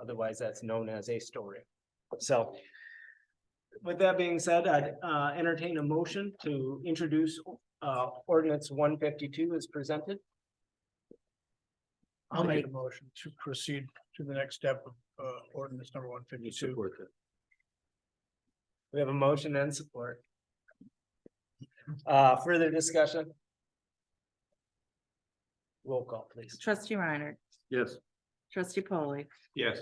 Otherwise, that's known as a story. So with that being said, I'd uh, entertain a motion to introduce uh, ordinance one fifty-two is presented. I'll make a motion to proceed to the next step of uh ordinance number one fifty-two. We have a motion and support. Uh, Further discussion? Roll call, please. Trustee Reiner. Yes. Trustee Polly. Yes.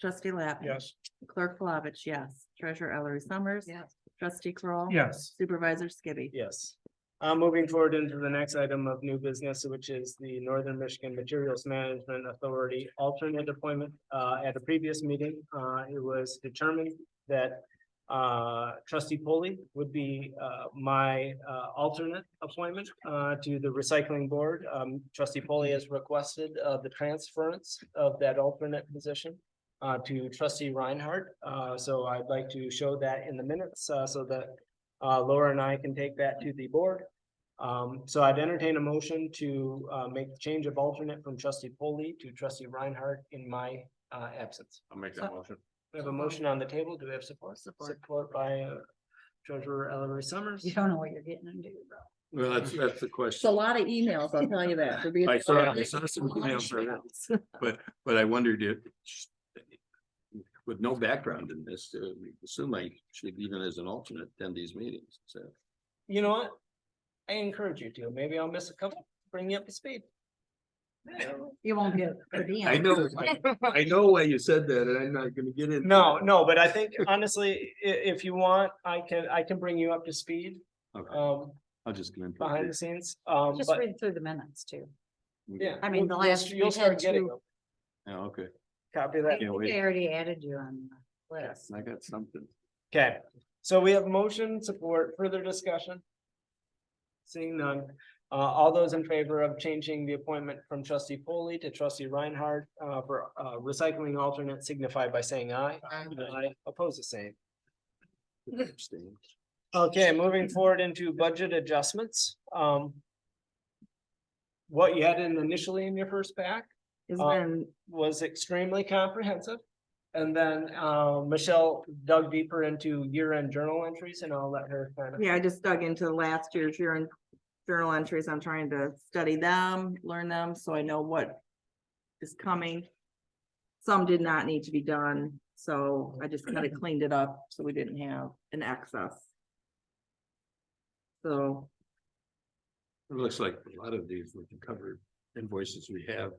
Trustee Lappin. Yes, Clerk Flavich, yes. Treasurer Ellery Summers. Yes. Trustee Kroll. yes, Supervisor Skibby. Yes. Uh, moving forward into the next item of new business, which is the Northern Michigan Materials Management Authority alternate appointment. Uh, at a previous meeting, uh, it was determined that uh, trustee Polly would be uh, my uh, alternate appointment uh, to the recycling board. Um, trustee Polly has requested uh, the transference of that alternate position uh, to trustee Reinhardt. Uh, so I'd like to show that in the minutes uh, so that uh, Laura and I can take that to the board. Um, so I'd entertain a motion to, uh, make the change of alternate from trustee Polly to trustee Reinhardt in my, uh, absence. I'll make that motion. We have a motion on the table. Do we have support? Support. by uh, treasurer Ellery Summers. You don't know what you're getting into, bro. Well, that's, that's the It's a question, lot of emails, I'll tell you that. It'll be- I saw- I saw some emails right now. but, but I wondered if. With no background in this, uh, assume I should even as an alternate attend these meetings, so. You know what? I encourage you to. Maybe I'll miss a couple, bring you up to speed. You won't get per diem. I know, I know why you said that, and I'm not gonna get in. No, no, but I think honestly, i- if you want, I can, I can bring you up to speed, Okay, um, I'll just come in. for a behind the brief- scenes. Um, Just but, read through the minutes too. yeah. I mean, the you'll- you'll- last we You'll start had getting two- them. Yeah, Oh, okay, Copy I that. Can't think wait. I already added you on the list. I got something. Okay, so we have motion support, further discussion? Seeing none, uh, all those in favor of changing the appointment from trustee Foley to trustee Reinhardt, uh, for, uh, recycling alternate signify by saying aye. Aye. Oppose the same. Abstain. Okay, moving forward into budget adjustments, um. What you had in initially in your first pack It's Oh, Uh, been was extremely comprehensive. And then, uh, Michelle dug deeper into year-end journal entries and I'll let her kind of. Yeah, I just dug into last year's year in journal entries. I'm trying to study them, learn them, so I know what is coming. Some did not need to be done, so I just kind of cleaned it up, so we didn't have an excess. So, It looks like a lot of these we can cover invoices we have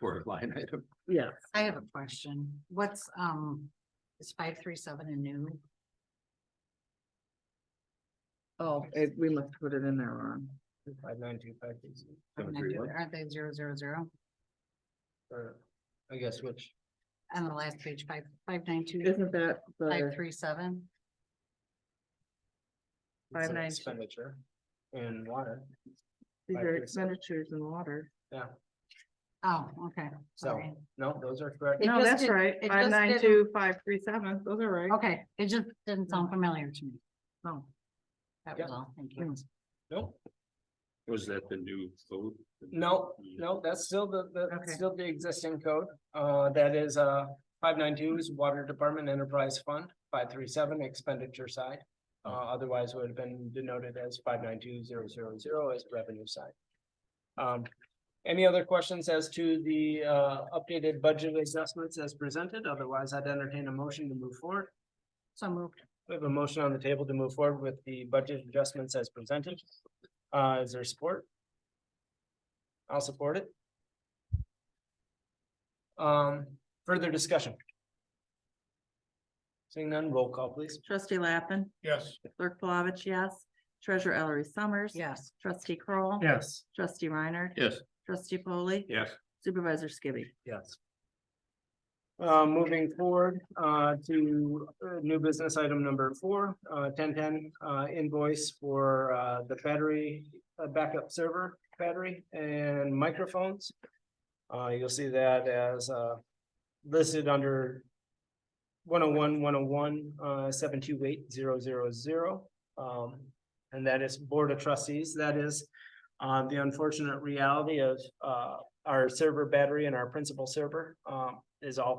for a line item. yeah, I have a question. What's, um, is five three seven a new? oh, it- we must put it in there wrong. Five nine two five two zero, Seven three one. Aren't they zero zero zero? or I guess which, On the last page, five, five nine two, Isn't that five the, three seven? it's Five an nine two. expenditure in water, these five are three seven. expenditures in water? yeah, Oh, okay. so, Sorry. no, those are correct. It No, just that's didn't- right, it just five nine didn't- Oh. two, five three seven, those are right. Okay, it just didn't sound familiar to me. Oh. That Yeah. was all. Thank you. Nope, Was that the new vote? no, no, that's still the, the, Okay. still the existing code, uh, that is, uh, five nine two is Water Department Enterprise Fund, five three seven expenditure side. Uh, otherwise would have been denoted as five nine two zero zero zero as revenue side. Um, any other questions as to the, uh, updated budget adjustments as presented? Otherwise, I'd entertain a motion to move forward. So moved. We have a motion on the table to move forward with the budget adjustments as presented. Uh, is there support? I'll support it. Um, further discussion? Seeing none, roll call please. Trustee Lappin, yes. clerk Flavich, yes. Treasurer Ellery Summers. Yes. Trustee Kroll, Yes. Trustee Reiner. Yes. Trustee Polly. Yes. Supervisor Skibby. Yes. Uh, moving forward, uh, to uh, new business item number four, uh, ten ten, uh, invoice for, uh, the battery, uh, backup server, battery and microphones. Uh, you'll see that as, uh, listed under 101, 101, uh, seven two eight zero zero zero. Um, and that is Board of Trustees, that is, uh, the unfortunate reality of, uh, our server battery and our principal server um is all